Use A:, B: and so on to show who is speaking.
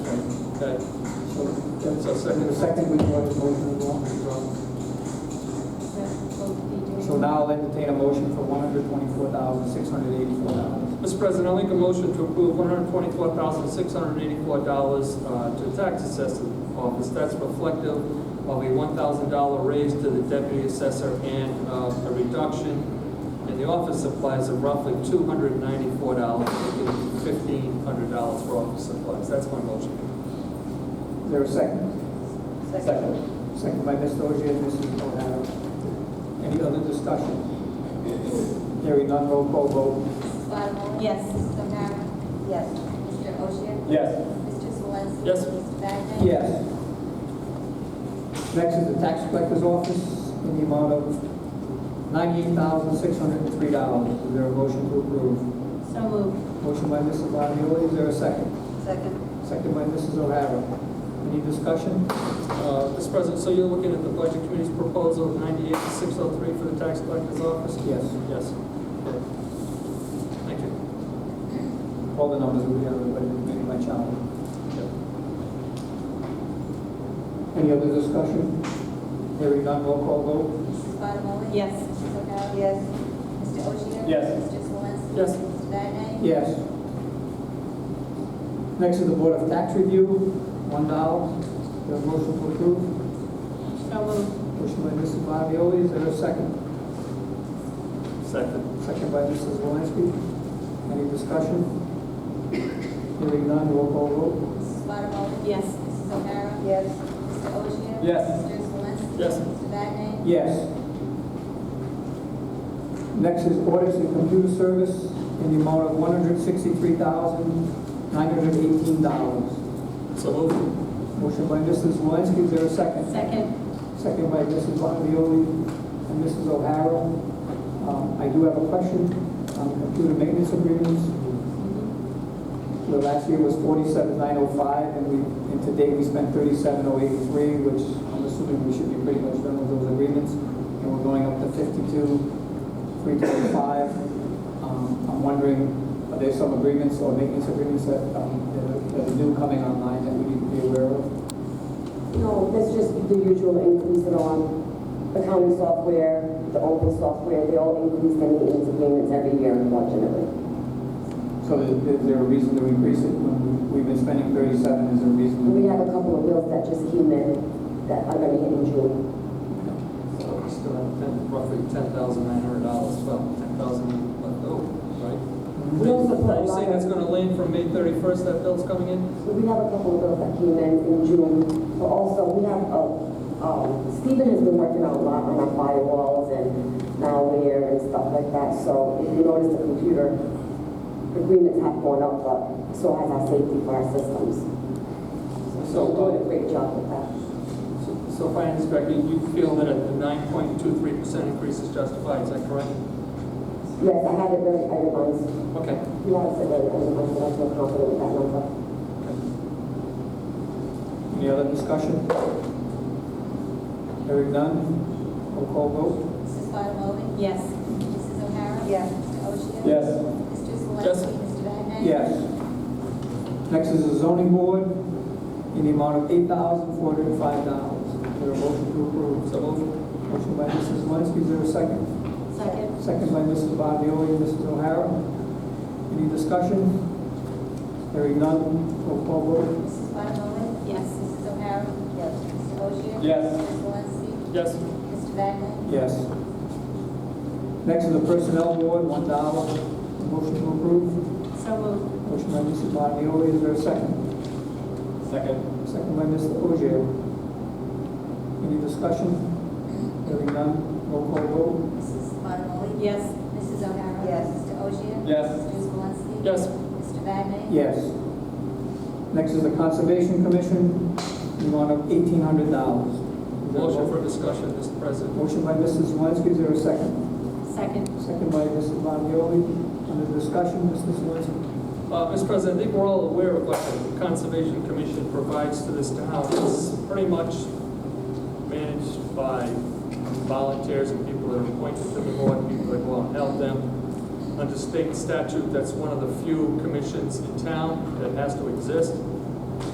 A: Okay, so that's our
B: And the
A: second.
B: second, we go to vote for the law as well. So now I'll entertain a motion for one hundred twenty-four thousand, six hundred eighty-four dollars.
A: Mr. President, I'll make a motion to approve one hundred twenty-four thousand, six hundred eighty-four dollars, uh, to the tax assessor office. That's reflective of a one thousand dollar raise to the deputy assessor and, uh, a reduction in the office supplies of roughly two hundred ninety-four dollars, making fifteen hundred dollars for office supplies. That's my motion.
B: Is there a second? Second by Mr. Ogier and Mrs. O'Hara. Any other discussion? Hearing none, roll call vote.
C: Bottomoli?
D: Yes.
C: Mrs. O'Hara? Yes. Mr. Oshia?
B: Yes.
C: Mr. Swansky?
A: Yes.
C: Mr. Bagley?
B: Yes. Next is the tax collector's office in the amount of ninety-eight thousand, six hundred and three dollars. Is there a motion to approve?
D: So moved.
B: Motion by Mrs. Bottomoli, is there a second?
D: Second.
B: Second by Mrs. O'Hara. Any discussion?
A: Uh, Mr. President, so you're looking at the budget committee's proposal of ninety-eight to six oh three for the tax collector's office?
B: Yes.
A: Yes. Okay. Thank you.
B: All the numbers will be on the budget committee by Charlie. Any other discussion? Hearing none, roll call vote.
C: Mrs. Bottomoli?
D: Yes.
C: Mrs. O'Hara?
D: Yes.
C: Mr. Oshia?
B: Yes.
C: Mr. Swansky?
A: Yes.
C: Mr. Bagley?
B: Yes. Next is the Board of Tax Review, one dollar. There a motion to approve?
D: So moved.
B: Motion by Mrs. Bottomoli, is there a second?
A: Second.
B: Second by Mrs. Zelinski. Any discussion? Hearing none, roll call vote.
C: Mrs. Bottomoli?
D: Yes.
C: Mrs. O'Hara?
D: Yes.
C: Mr. Oshia?
B: Yes.
C: Mr. Swansky?
A: Yes.
C: Mr. Bagley?
B: Yes. Next is audits and computer service in the amount of one hundred sixty-three thousand, nine hundred eighteen dollars.
A: So moved.
B: Motion by Mrs. Zelinski, is there a second?
D: Second.
B: Second by Mrs. Bottomoli and Mrs. O'Hara. Um, I do have a question on the computer maintenance agreements. The last year was forty-seven nine oh five, and we, and today we spent thirty-seven oh eighty-three, which I'm assuming we should be pretty much done with those agreements. And we're going up to fifty-two, three twenty-five. Um, I'm wondering, are there some agreements or maintenance agreements that, um, that are- that are new coming online that we need to be aware of?
E: No, that's just the usual increase in on accounting software, the open software, they all increase their maintenance agreements every year unfortunately.
B: So is, is there a reason to increase it when we've been spending thirty-seven? Is there a reason? to-
E: We have a couple of bills that just came in that are gonna hit in June.
A: So we still have ten, roughly ten thousand nine hundred dollars, well, ten thousand left over, right?
E: No support
A: Are you saying that's gonna land from May thirty-first, that bill's coming in?
E: So we have a couple of bills that came in in June, but also we have, uh, um, Stephen has been working out a lot on our firewalls and malware and stuff like that, so if you notice the computer agreements have gone up, but so has our safety for our systems. So we're doing a great job with that.
A: So- So if I understand correctly, you feel that a nine point two three percent increase is justified, is that correct?
E: Yes, I had it very itemized.
A: Okay.
E: You have it very itemized, and I feel confident with that number.
B: Any other discussion? Hearing none, roll call vote.
C: Mrs. Bottomoli?
D: Yes.
C: Mrs. O'Hara?
D: Yes.
C: Mr. Oshia?
B: Yes.
C: Mr. Swansky?
A: Yes.
C: Mr. Bagley?
B: Yes. Next is the zoning board in the amount of eight thousand four hundred and five dollars. There a motion to approve.
A: So moved.
B: Motion by Mrs. Zelinski, is there a second?
D: Second.
B: Second by Mrs. Bottomoli and Mrs. O'Hara. Any discussion? Hearing none, roll call vote.
C: Mrs. Bottomoli?
D: Yes.
C: Mrs. O'Hara? Yes. Mr. Oshia?
B: Yes.
C: Mr. Swansky?
A: Yes.
C: Mr. Bagley?
B: Yes. Next is the personnel board, one dollar. Motion to approve.
D: So moved.
B: Motion by Mrs. Bottomoli, is there a second? Second. Second by Mr. Ogier. Any discussion? Hearing none, roll call vote.
C: Mrs. Bottomoli?
D: Yes.
C: Mrs. O'Hara?
D: Yes.
C: Mr. Oshia?
B: Yes.
C: Mr. Swansky?
A: Yes.
C: Mr. Bagley?
B: Yes. Next is the Conservation Commission, the amount of eighteen hundred dollars.
A: Motion for discussion, Mr. President.
B: Motion by Mrs. Zelinski, is there a second?
D: Second.
B: Second by Mrs. Bottomoli. Under discussion, Mrs. Zelinski.
A: Uh, Mr. President, I think we're all aware of what the Conservation Commission provides to this town. It's pretty much managed by volunteers and people that are appointed to the board, people that go out and help them. Under state statute, that's one of the few commissions in town that has to exist.